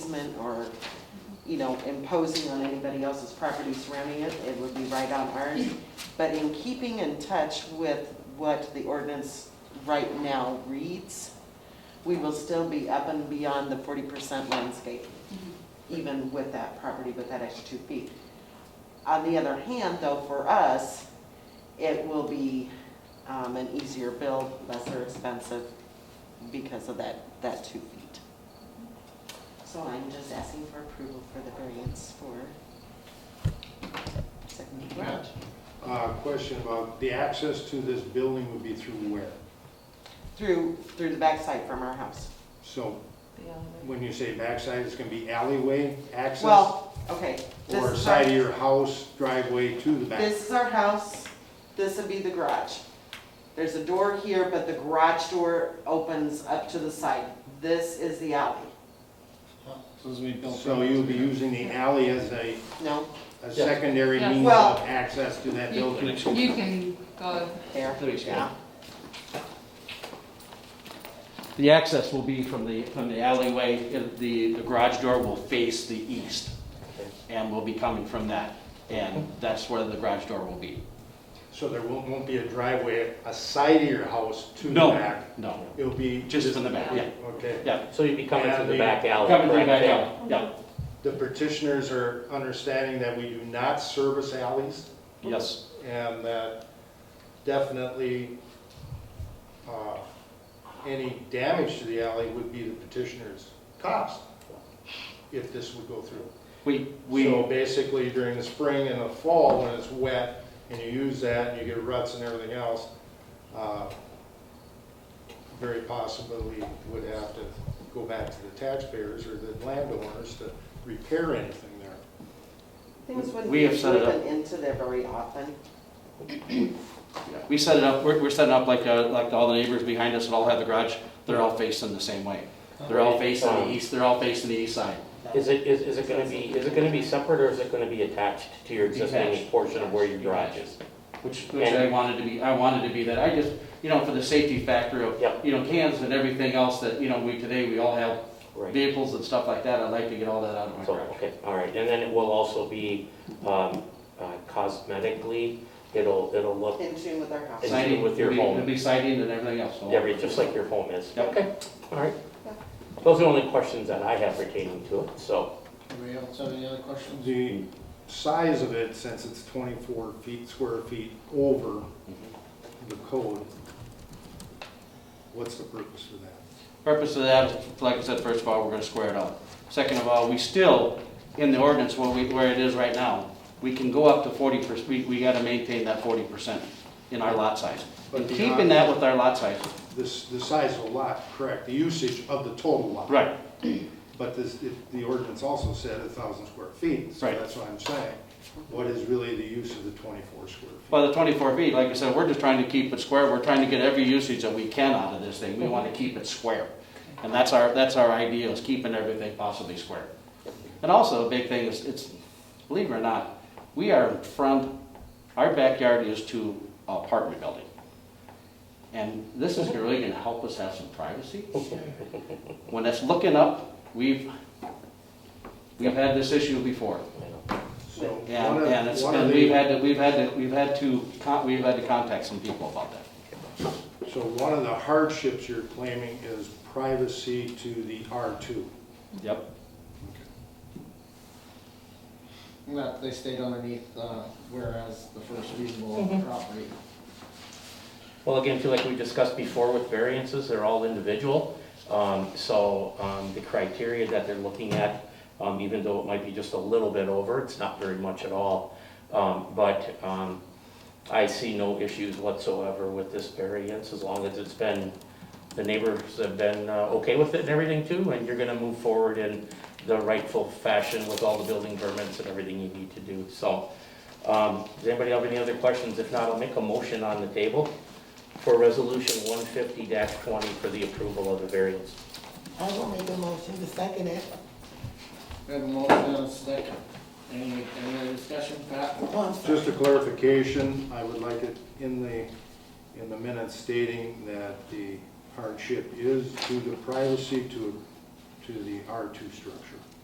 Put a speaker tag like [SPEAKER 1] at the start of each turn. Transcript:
[SPEAKER 1] easement or, you know, imposing on anybody else's property surrounding it, it would be right on ours. But in keeping in touch with what the ordinance right now reads, we will still be up and beyond the forty percent landscape, even with that property, with that extra two feet. On the other hand, though, for us, it will be um, an easier build, lesser expensive because of that, that two feet. So I'm just asking for approval for the variance for second garage.
[SPEAKER 2] Uh, question about the access to this building would be through where?
[SPEAKER 1] Through, through the backside from our house.
[SPEAKER 2] So when you say backside, it's gonna be alleyway access?
[SPEAKER 1] Well, okay. this
[SPEAKER 2] Or
[SPEAKER 1] is
[SPEAKER 2] side of
[SPEAKER 1] our-
[SPEAKER 2] your house driveway to the back?
[SPEAKER 1] This is our house, this would be the garage. There's a door here, but the garage door opens up to the side. This is the alley.
[SPEAKER 3] So as we built.
[SPEAKER 2] So you'll be using the alley as a,
[SPEAKER 1] No,
[SPEAKER 2] a secondary
[SPEAKER 4] Yeah.
[SPEAKER 2] means
[SPEAKER 1] Well-
[SPEAKER 2] of access to that
[SPEAKER 4] You
[SPEAKER 2] building?
[SPEAKER 4] you can go,
[SPEAKER 1] there,
[SPEAKER 5] There you go.
[SPEAKER 1] yeah.
[SPEAKER 5] The access will be from the, from the alleyway, Uh, the, the garage door will face the east and will be coming from that. And that's where the garage door will be.
[SPEAKER 2] So there won't, won't be a driveway, a side of your house to the
[SPEAKER 5] No,
[SPEAKER 2] back?
[SPEAKER 5] No,
[SPEAKER 2] It'll be?
[SPEAKER 5] just from the back, yeah,
[SPEAKER 2] Okay.
[SPEAKER 5] yeah.
[SPEAKER 6] So you'd be coming through the back alley,
[SPEAKER 5] Coming through
[SPEAKER 6] correct?
[SPEAKER 5] that, yeah, yeah,
[SPEAKER 2] The petitioners are understanding that we do not service alleys?
[SPEAKER 5] yes.
[SPEAKER 2] and that definitely uh, any damage to the alley would be the petitioner's cost if this would go through.
[SPEAKER 5] We, we,
[SPEAKER 2] So basically during the spring and the fall, when it's wet and you use that and you get ruts and everything else, uh, very possibly would have to go back to the taxpayers or the landowners to repair anything there.
[SPEAKER 1] Things wouldn't
[SPEAKER 5] We have set it up.
[SPEAKER 1] open into there very often.
[SPEAKER 5] we set it up, we're, we're setting up like, uh, like all the neighbors behind us that all have the garage, they're all facing the same way. They're all facing the east, they're all facing the east side.
[SPEAKER 6] Is it, is, is it gonna be, is it gonna be separate or is it gonna be attached to your existing
[SPEAKER 5] Detached.
[SPEAKER 6] portion of where your garage is?
[SPEAKER 5] Which, which I wanted to be, I wanted to be that, I just, you know, for the safety factor of,
[SPEAKER 6] Yep.
[SPEAKER 5] you know, cans and everything else that, you know, we, today, we all have
[SPEAKER 6] Right.
[SPEAKER 5] vehicles and stuff like that, I'd like to get all that out of my
[SPEAKER 6] So,
[SPEAKER 5] garage.
[SPEAKER 6] okay, all right, and then it will also be, um, uh, cosmetically, it'll, it'll look
[SPEAKER 1] In tune with our house.
[SPEAKER 6] It's- Siding with your
[SPEAKER 5] it'll be-
[SPEAKER 6] home.
[SPEAKER 5] It'll be siding and everything else, so.
[SPEAKER 6] every, just like your home is.
[SPEAKER 5] Yep.
[SPEAKER 6] Okay, all right.
[SPEAKER 1] Yeah.
[SPEAKER 6] Those are the only questions that I have pertaining to it, so,
[SPEAKER 3] Anybody else have any other questions?
[SPEAKER 2] The size of it, since it's 24 feet, square feet over the code, what's the purpose of that?
[SPEAKER 5] Purpose of that, like I said, first of all, we're gonna square it up. Second of all, we still, in the ordinance, where we, where it is right now, we can go up to forty percent, we, we gotta maintain that forty percent in our lot size.
[SPEAKER 2] But
[SPEAKER 5] And
[SPEAKER 2] the-
[SPEAKER 5] keeping that with our lot size.
[SPEAKER 2] This, the size of the lot, correct, the usage of the total lot.
[SPEAKER 5] Right.
[SPEAKER 2] But this, it- the ordinance also said a thousand square feet, so
[SPEAKER 5] Right.
[SPEAKER 2] that's what I'm saying. What is really the use of the 24 square feet?
[SPEAKER 5] Well, the twenty-four feet, like I said, we're just trying to keep it square, we're trying to get every usage that we can out of this thing, we wanna keep it square. And that's our, that's our idea, is keeping everything possibly square. And also, a big thing is, it's, believe it or not, we are in front, our backyard is to apartment building. And this is really gonna help us have some privacy. When it's looking up, we've, we've had this issue before.
[SPEAKER 6] you know.
[SPEAKER 2] So
[SPEAKER 5] Yeah,
[SPEAKER 2] one of-
[SPEAKER 5] and it's
[SPEAKER 2] one of
[SPEAKER 5] been, we've
[SPEAKER 2] the-
[SPEAKER 5] had to, we've had to, we've had to, con- we've had to contact some people about that.
[SPEAKER 2] So one of the hardships you're claiming is privacy to the R2.
[SPEAKER 5] Yep.
[SPEAKER 3] That they stayed underneath, uh, whereas the first reasonable on the property.
[SPEAKER 6] Well, again, I feel like we discussed before with variances, they're all individual. Um, So um, the criteria that they're looking at, um, even though it might be just a little bit over, it's not very much at all. Um, But um, I see no issues whatsoever with this variance as long as it's been, the neighbors have been uh, okay with it and everything too. And you're going to move forward in the rightful fashion with all the building permits and everything you need to do. So um, does anybody have any other questions? If not, I'll make a motion on the table for resolution one fifty twenty for the approval of the variance.
[SPEAKER 7] I will make a motion to second it.
[SPEAKER 3] We have a motion and a second. Any, any other discussion, Pat?
[SPEAKER 7] Oh, I'm
[SPEAKER 2] Just a clarification, I would like it in the, in the minutes stating that the hardship is due to privacy to, to the R2 structure.